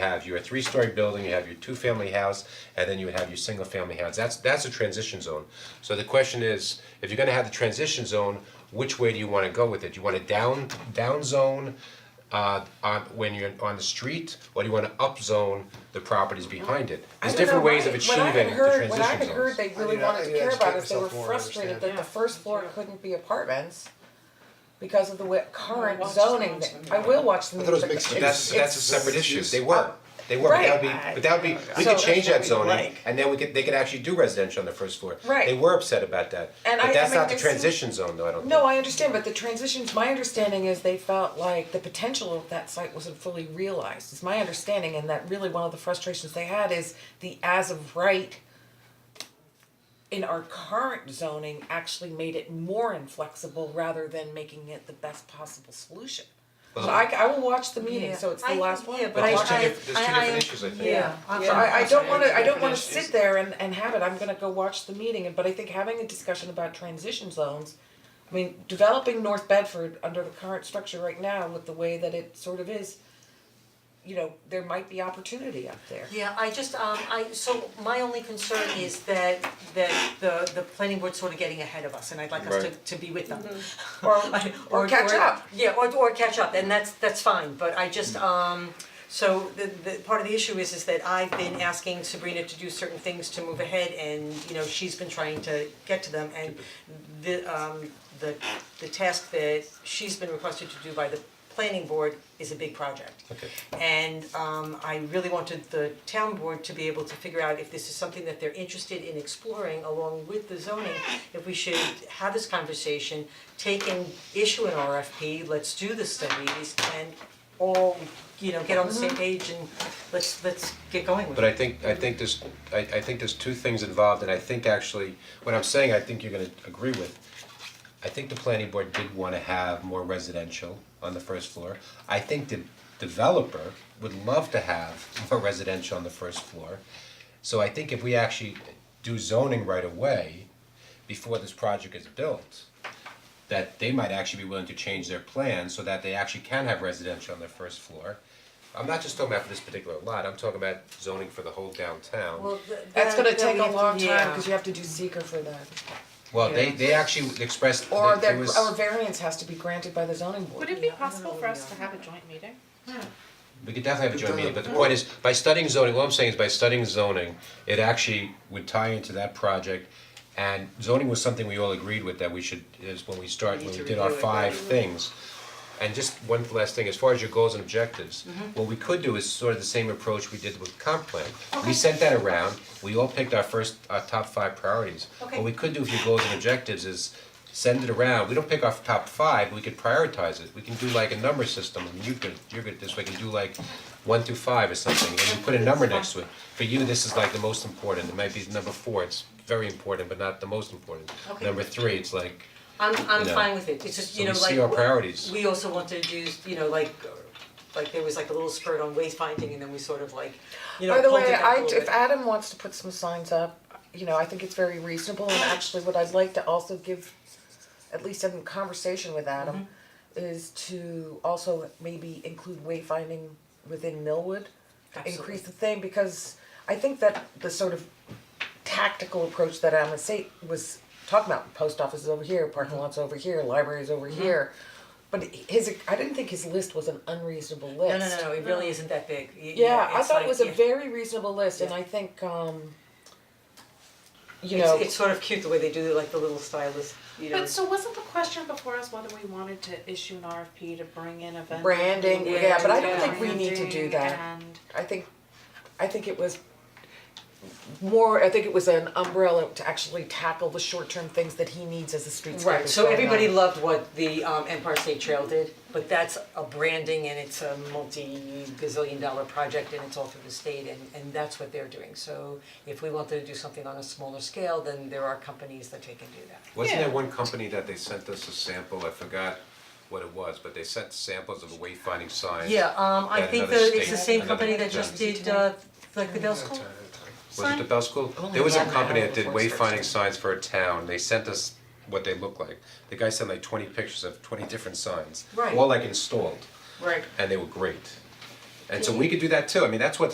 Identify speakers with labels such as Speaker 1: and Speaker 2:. Speaker 1: have your three-story building, you have your two-family house, and then you have your single-family house, that's, that's a transition zone. So the question is, if you're gonna have the transition zone, which way do you wanna go with it? Do you wanna down, down zone, uh, on, when you're on the street, or do you wanna up zone the properties behind it? There's different ways of achieving the transition zones.
Speaker 2: When I had heard, they really
Speaker 3: need to- I
Speaker 2: wanted to
Speaker 3: need to
Speaker 2: care about
Speaker 3: educate
Speaker 2: us, they were
Speaker 3: myself more to
Speaker 2: frustrated
Speaker 3: understand.
Speaker 2: that the first floor couldn't be apartments because of the way current
Speaker 4: watch the
Speaker 2: zoning,
Speaker 4: news
Speaker 2: that-
Speaker 4: when
Speaker 2: I
Speaker 4: you're-
Speaker 2: will watch the
Speaker 3: I
Speaker 2: news.
Speaker 3: thought it was mixed
Speaker 1: But
Speaker 3: use.
Speaker 1: that's, that's a separate
Speaker 3: Mixed
Speaker 1: issue,
Speaker 3: use.
Speaker 1: they were, they were, but that would
Speaker 2: Right.
Speaker 1: be, but that would be, we
Speaker 2: So-
Speaker 1: could change that
Speaker 2: That's
Speaker 1: zoning, and then we could, they could actually do residential on the first floor.
Speaker 2: Right.
Speaker 1: They were upset about that,
Speaker 2: And I-
Speaker 1: but
Speaker 2: I
Speaker 1: that's
Speaker 2: mean,
Speaker 1: not the
Speaker 2: there's some-
Speaker 1: transition zone though, I don't think.
Speaker 2: No, I understand, but the transitions, my understanding is they felt like the potential of that site wasn't fully realized, is my understanding, and that really one of the frustrations they had is the as of right in our current zoning actually made it more inflexible rather than making it the best possible solution. So I I will watch the meeting, so it's the
Speaker 5: Yeah.
Speaker 2: last
Speaker 5: I-
Speaker 2: one,
Speaker 5: yeah,
Speaker 2: but
Speaker 1: But
Speaker 2: I
Speaker 1: there's two
Speaker 5: I-
Speaker 1: diff- there's two
Speaker 5: I- I-
Speaker 1: different issues, I think.
Speaker 5: Yeah, I'm
Speaker 2: Yeah, I I don't wanna, I don't wanna
Speaker 4: Definitions.
Speaker 2: sit there and and have it, I'm gonna go watch the meeting, and but I think having a discussion about transition zones. I mean, developing North Bedford under the current structure right now with the way that it sort of is, you know, there might be opportunity up there.
Speaker 5: Yeah, I just, um, I, so my only concern is that, that the, the planning board's sort of getting ahead of us, and I'd like us to,
Speaker 1: Right.
Speaker 5: to be with them.
Speaker 2: Or
Speaker 5: I-
Speaker 2: Mm-hmm. or catch up.
Speaker 5: Yeah, or or catch up, and that's that's fine, but I just um so the the part of the issue is is that I've been asking Sabrina to do certain things to move ahead and you know, she's been trying to get to them and the um the the task that she's been requested to do by the planning board is a big project.
Speaker 1: Okay.
Speaker 5: And um I really wanted the town board to be able to figure out if this is something that they're interested in exploring along with the zoning, if we should have this conversation, take and issue an RFP, let's do the studies and all, you know, get on the
Speaker 2: Mm-hmm.
Speaker 5: same page and let's let's get going with it.
Speaker 1: But I think, I think there's, I, I think there's two things involved, and I think actually, what I'm saying, I think you're gonna agree with. I think the planning board did wanna have more residential on the first floor. I think the developer would love to have more residential on the first floor. So I think if we actually do zoning right away, before this project is built, that they might actually be willing to change their plan so that they actually can have residential on their first floor. I'm not just talking about for this particular lot, I'm talking about zoning for the whole downtown.
Speaker 5: Well, th-
Speaker 2: That's
Speaker 5: that-
Speaker 2: gonna
Speaker 5: that
Speaker 2: take
Speaker 5: we
Speaker 2: a
Speaker 5: have to-
Speaker 2: long time,
Speaker 5: yeah.
Speaker 2: cause you have to do seeker for that,
Speaker 1: Well, they they actually expressed
Speaker 2: or
Speaker 1: that there
Speaker 2: their,
Speaker 1: was.
Speaker 2: or variance has to be granted by the zoning board.
Speaker 4: Would it be possible for us to have a joint meeting?
Speaker 1: We could definitely have a joint meeting, but the point is, by studying zoning, what I'm saying is by studying zoning, it actually would tie into that project. And zoning was something we all agreed with that we should, is when we start, when we did our five things. And just one last thing, as far as your goals and objectives,
Speaker 5: Mm-hmm.
Speaker 1: what we could do is sort of the same approach we did with comp plan. We sent that around, we all picked our first, our top five priorities.
Speaker 5: Okay.
Speaker 1: What we could do with your goals and objectives is send it around, we don't pick our top five, we could prioritize it. We can do like a number system, and you could, you're good at this, we can do like one through five or something, and you put a number next to it. For you, this is like the most important, it might be number four, it's very important, but not the most important.
Speaker 5: Okay.
Speaker 1: Number three, it's like,
Speaker 5: I'm I'm
Speaker 1: you know.
Speaker 5: fine with it, it's just,
Speaker 1: so
Speaker 5: you
Speaker 1: we
Speaker 5: know, like.
Speaker 1: see our priorities.
Speaker 5: We also wanted to use, you know, like, uh, like there was like a little spurt on wayfinding and then we sort of like, you know,
Speaker 2: By the
Speaker 5: pulled
Speaker 2: way,
Speaker 5: it back a
Speaker 2: I,
Speaker 5: little bit.
Speaker 2: if Adam wants to put some signs up, you know, I think it's very reasonable, and actually what I'd like to also give, at least in conversation with Adam,
Speaker 5: Mm-hmm.
Speaker 2: is to also maybe include wayfinding within Millwood, to increase the thing, because I think that the sort of tactical approach that Adam was say, was talking about, post offices over here, parking lots over here, libraries over
Speaker 5: Mm-hmm.
Speaker 2: here. But his, I didn't think his list was an unreasonable list.
Speaker 5: No, no, no, no, it really isn't that big, Y- you
Speaker 2: Yeah,
Speaker 5: know,
Speaker 2: I
Speaker 5: it's
Speaker 2: thought
Speaker 5: like-
Speaker 2: it was a
Speaker 5: yeah.
Speaker 2: very reasonable list, and
Speaker 5: Yeah.
Speaker 2: I think, um, you
Speaker 5: It's
Speaker 2: know,
Speaker 5: it's sort of cute the way they do like the little stylus, you know.
Speaker 4: But so wasn't the question before us whether we wanted to issue an RFP to bring in a vendor?
Speaker 2: Branding,
Speaker 4: to
Speaker 5: yeah, but I don't
Speaker 4: do
Speaker 5: think
Speaker 2: we need to do
Speaker 4: branding
Speaker 2: that.
Speaker 4: and-
Speaker 2: I think, I think it was more, I think it was an umbrella to actually tackle the short-term things that he needs as a streetscape.
Speaker 5: Right, so everybody loved what the um Empire State Trail did, but that's a branding and it's a multi-gazillion dollar project and it's all through the state and and that's what they're doing. So if we wanted to do something on a smaller scale, then there are companies that they can do that.
Speaker 1: Wasn't there
Speaker 4: Yeah.
Speaker 1: one company that they sent us a sample, I forgot what it was, but they sent samples of the wayfinding signs.
Speaker 5: Yeah, um I
Speaker 1: Yeah,
Speaker 5: think
Speaker 1: another
Speaker 5: the it's the
Speaker 1: state,
Speaker 5: same
Speaker 1: another
Speaker 5: company that just did uh like the Bell School.
Speaker 1: Was it the Bell School?
Speaker 2: Only
Speaker 1: There was a
Speaker 2: one
Speaker 1: company
Speaker 2: hour
Speaker 1: that did
Speaker 2: before it starts.
Speaker 1: wayfinding signs for a town, they sent us what they look like. The guy sent like twenty pictures of twenty different signs,
Speaker 5: Right.
Speaker 1: all like installed,
Speaker 5: Right.
Speaker 1: and they were great. And so we could do that too, I mean, that's what